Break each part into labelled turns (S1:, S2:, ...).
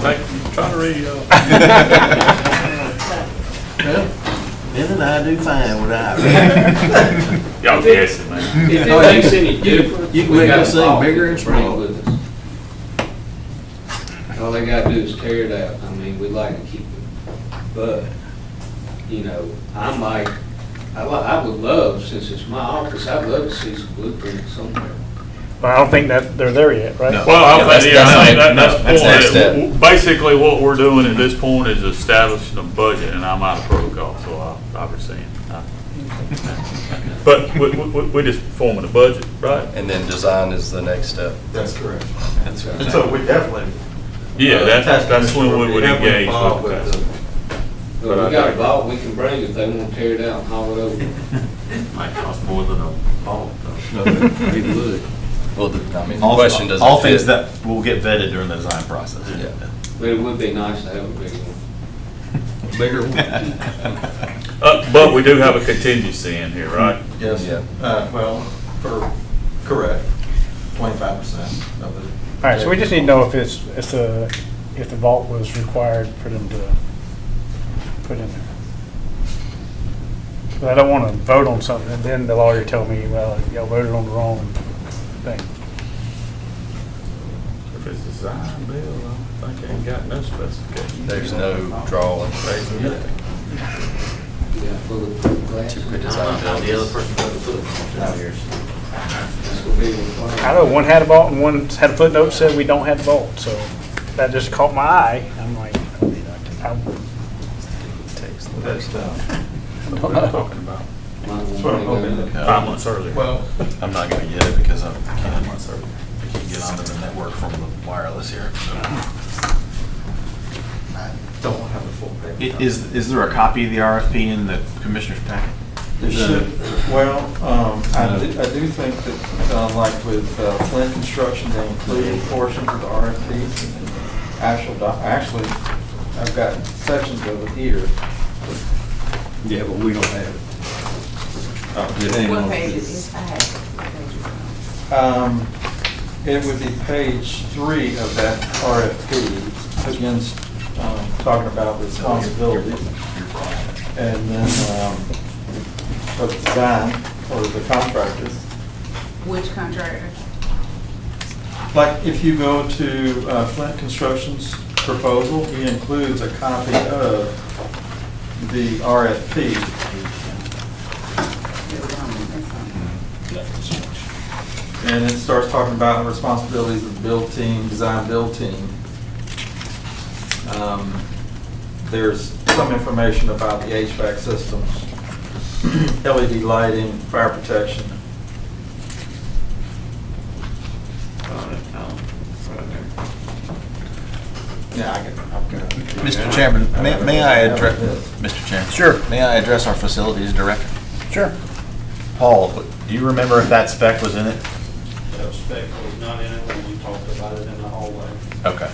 S1: Trying to read, uh,
S2: Ben and I do fine without it.
S1: y'all guessing, man.
S3: If it makes any difference.
S2: Oh, You can
S3: we
S2: make
S3: got
S2: this thing
S3: a fault
S2: bigger and
S3: that's wrong
S2: smaller.
S3: with us. All they gotta do is tear it out. I mean, we'd like to keep it. But, you know, I might, I li, I would love, since it's my office, I'd love to see some blueprints somewhere.
S4: But I don't think that they're there yet, right?
S1: Well, I
S5: that's-
S1: think, yeah, I
S5: that's-
S1: think that, that's
S5: no, that's next
S1: the
S5: step.
S1: point. W- Basically, what we're doing at this point is establishing a budget, and I'm out of protocol, so I, I rescind. But we, we, we- we're just forming a budget, right?
S5: And uh, then design is the next step.
S6: That's correct.
S5: That's
S6: And so we definitely.
S1: Yeah,
S6: uh,
S1: that's, that's when we
S6: we're
S1: would
S6: heavily
S1: engage
S6: involved
S1: with
S6: the-
S1: that.
S6: But
S3: But
S6: I
S3: we got a
S6: think-
S3: vault we can bring if they wanna tear it out and haul it over.
S6: Might cost more than a ball, though.
S3: It would.
S5: Well, the- I mean, the
S7: All-
S5: question doesn't
S7: All things
S5: fit.
S7: that will get vetted during the design process.
S5: Yeah.
S3: But it would be nice to have a big one.
S5: Bigger.
S1: Uh, but we do have a contingency in here,
S5: Hmm.
S1: right?
S6: Yes,
S5: Yeah.
S6: uh, well, for, correct, twenty-five percent of the.
S4: All right, so we just need to know if it's, if the, if the vault was required for them to put in there. But I don't want to vote on something, and then the lawyer tell me, well, y'all voted on the wrong thing.
S1: If it's design bill, I don't think I ain't got no specifications.
S5: There's no drawing.
S3: Yeah, full of glass.
S5: Typical design buildings.
S3: That's gonna be required.
S4: I know one had a vault and one had a footnote that said we don't have the vault, so that just caught my eye. I'm like, I
S6: That's, uh,
S4: don't know.
S1: Talking about
S3: Might
S6: that's what I'm
S3: wanna make
S6: hoping.
S3: a-
S1: five months earlier.
S6: Well,
S7: I'm not gonna get it because I can't, I can't get onto the network from the wireless here.
S6: I don't have the full paper.
S7: Is, is there a copy of the RFP in the commissioner's packet?
S6: There should, well, um, I do, I do think that, uh, like with uh, Flynn Construction, they included portions of the RFPs and the actual, doc- actually, I've got sections of it here.
S2: Yeah, but we don't have it.
S6: Oh,
S8: What page is this? I have what page is it?
S6: Um, It would be page three of that RFP, begins um, talking about responsibilities. And then, um, for the design, or the contractors.
S8: Which contractor?
S6: Like, if you go to uh, Flint Construction's proposal, it includes a copy of the RFP. And it starts talking about the responsibilities of the build team, design build team. Um, There's some information about the HVAC systems, LED lighting, fire protection. Yeah, I can, I've got.
S7: Mr. Chairman, may, may I address, Mr. Chairman? Sure. May I address our facilities director?
S4: Sure.
S7: Paul, do you remember if that spec was in it?
S9: That spec was not in it when we talked about it in the hallway.
S7: Okay.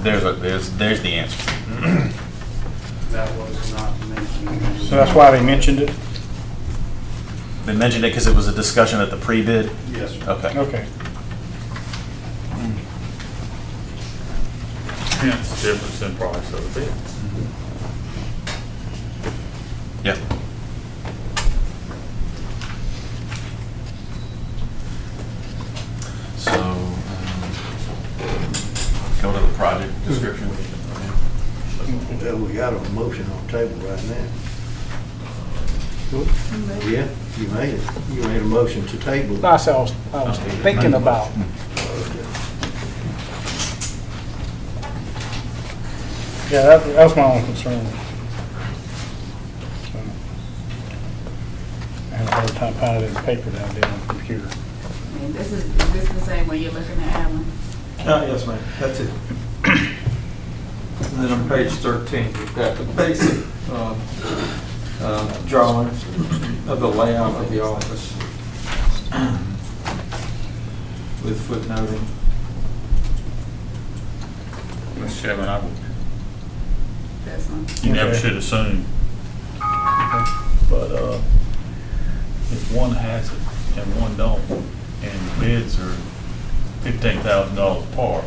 S7: There's a, there's, there's the answer.
S9: That was not mentioned.
S4: So that's why they mentioned it?
S7: They mentioned it because it was a discussion at the pre-bid?
S9: Yes, sir.
S7: Okay.
S4: Okay.
S1: Hence, the difference in price of the bid.
S7: Yeah. So, um, go to the project description.
S2: Well, Uh, we got a motion on the table right now. Yeah, you made it. You made a motion to table.
S4: No, I said I was, I was thinking about. Yeah, that, that was my own concern. So, I had a hard time finding it in the paper than I did on the computer.
S8: I mean, This is, is this the same one you're looking at, Alan?
S6: Uh, yes, ma'am, that's it. And then on page 13, we've got the basic um, uh, drawings of the layout of the office with footnoting.
S1: Mr. Chairman, I would
S8: This one?
S1: You never
S4: Okay.
S1: should assume. But uh, if one has it and one don't, and bids are fifteen thousand dollars apart,